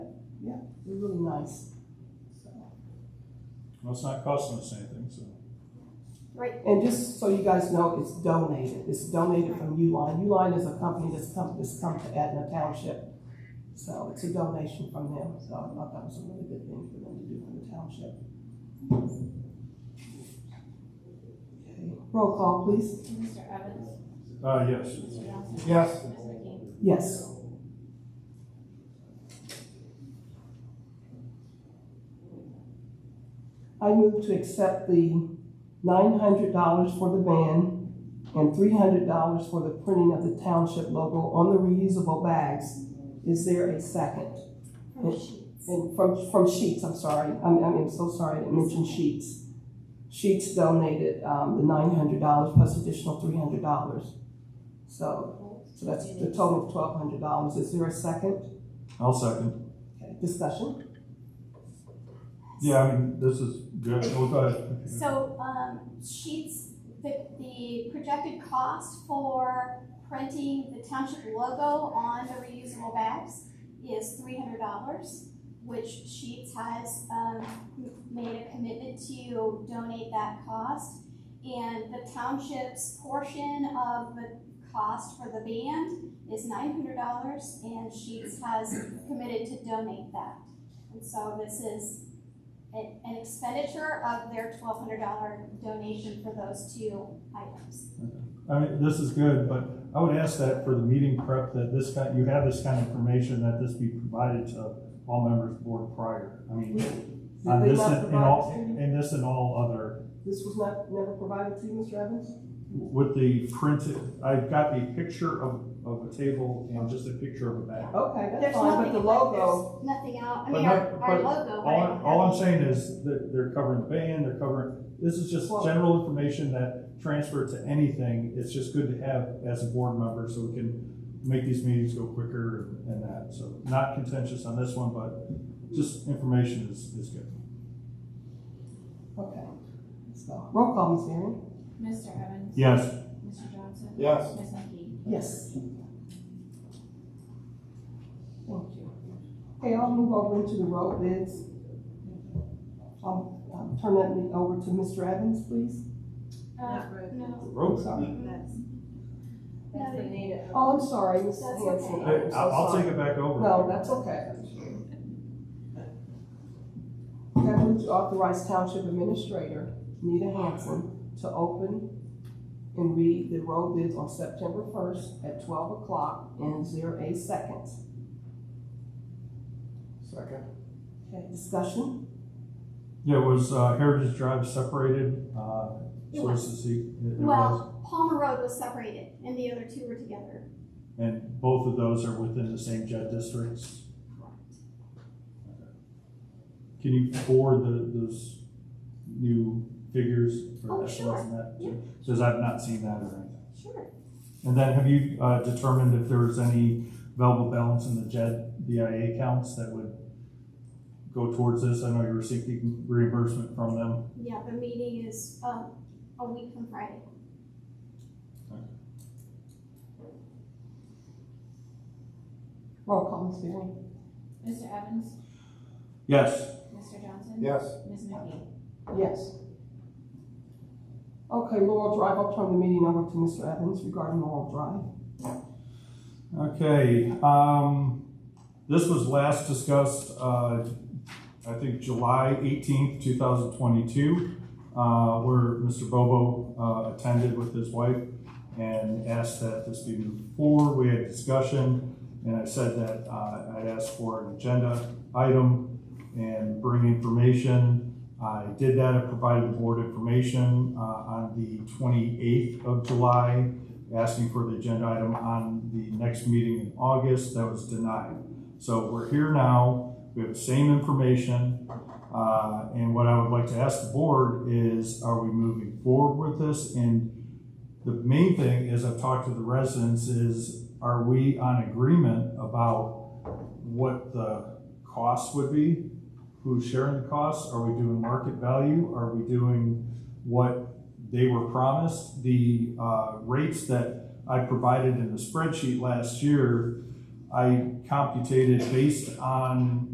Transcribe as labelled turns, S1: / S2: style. S1: really nice. So,
S2: Well, it's not costing us anything, so.
S3: Right.
S1: And just so you guys know, it's donated, it's donated from Uline, Uline is a company that's come, that's come to Etna Township. So it's a donation from them, so I thought that was a really good thing for them to do for the township. Okay. Roll call, please.
S3: Mr. Evans?
S2: Uh, yes.
S3: Mr. Johnson?
S2: Yes.
S3: Ms. McKee?
S1: Yes. I move to accept the nine hundred dollars for the van and three hundred dollars for the printing of the township logo on the reusable bags. Is there a second?
S3: From Sheets.
S1: And from, from Sheets, I'm sorry, I'm, I'm so sorry, I didn't mention Sheets. Sheets donated, um, the nine hundred dollars plus additional three hundred dollars. So, so that's the total of twelve hundred dollars. Is there a second?
S2: I'll second.
S1: Okay, Discussion?
S2: Yeah, I mean, this is good. Well, go ahead.
S3: So, um, Sheets, the, the projected cost for printing the township logo on the reusable bags is three hundred dollars, which Sheets has, um, made a commitment to donate that cost. And the township's portion of the cost for the band is nine hundred dollars, and Sheets has committed to donate that. And so this is an an expenditure of their twelve hundred dollar donation for those two items.
S2: I mean, this is good, but I would ask that for the meeting prep, that this kind, you have this kind of information, that this be provided to all members of the board prior. I mean,
S1: Did
S2: on
S1: they
S2: Uh, this
S1: not
S2: and and
S1: provide
S2: all,
S1: it to you?
S2: and this and all other,
S1: This was not, never provided to you, Mr. Evans?
S2: with the printed, I've got the picture of, of a table and just a picture of a bag.
S1: Okay, that's
S3: There's
S1: fine, but
S3: nothing-
S1: the logo,
S3: there's Nothing out, I
S2: But
S3: mean,
S2: no-
S3: our, our
S2: but
S3: logo, but I
S2: All,
S3: don't
S2: I'm- all I'm
S3: have
S2: saying is that they're covering the band, they're covering, this is just
S1: Well-
S2: general information that transfer to anything. It's just good to have as a board member so we can make these meetings go quicker and that. So not contentious on this one, but just information is, is good.
S1: okay. So, roll call, Ms. Erin?
S4: Mr. Evans?
S2: Yes.
S4: Mr. Johnson?
S2: Yes.
S4: Ms. McKee?
S1: Yes. Thank you. Okay, I'll move over into the road bids. I'll, um, turn that meeting over to Mr. Evans, please.
S3: Uh,
S4: Not really.
S3: no,
S2: Rope.
S1: Sorry.
S4: That's,
S3: that's the
S4: native.
S1: Oh, I'm sorry, Ms.
S3: That's
S1: Hanson.
S2: Hey,
S1: I'm so
S2: I'll, I'll
S1: sorry.
S2: take it back over.
S1: No, that's okay. Okay, I move to authorize Township Administrator Nita Hanson to open and read the road bids on September first at twelve o'clock and zero eight seconds.
S5: Second.
S1: Okay, discussion?
S2: Yeah, it was uh, Heritage Drive separated, uh,
S3: It
S2: so
S3: was.
S2: it's to see. it- it was.
S3: well, Palmer Road was separated and the other two were together.
S2: And both of those are within the same JED districts. Can you forward the, those new figures
S3: Oh,
S2: for
S3: sure.
S2: echelons and that?
S3: Yeah.
S2: Because I've not seen that or anything.
S3: Sure.
S2: And then have you, uh, determined if there was any available balance in the JED BIA accounts that would go towards this? I know you were seeking reimbursement from them.
S3: Yeah, the meeting is, um, a week from Friday.
S1: Roll call, Ms. Varyn.
S4: Mr. Evans?
S2: Yes,
S4: Mr. Johnson?
S5: Yes.
S4: Ms. McKee?
S1: Yes. Okay, Laurel Drive, I'll turn the meeting over to Mr. Evans regarding Laurel Drive.
S2: okay, um, this was last discussed, uh, I think July eighteenth, two thousand twenty-two, uh, where Mr. Bobo, uh, attended with his wife and asked that this be moved forward. We had discussion, and I said that, uh, I'd ask for an agenda item and bring information. I did that, I provided the board information, uh, on the twenty-eighth of July, asking for the agenda item on the next meeting in August, that was denied. So we're here now, we have the same information, uh, and what I would like to ask the board is, are we moving forward with this? And the main thing is, I've talked to the residents, is are we on agreement about what the cost would be? Who's sharing the costs? Are we doing market value? Are we doing what they were promised? The, uh, rates that I provided in the spreadsheet last year, I computated based on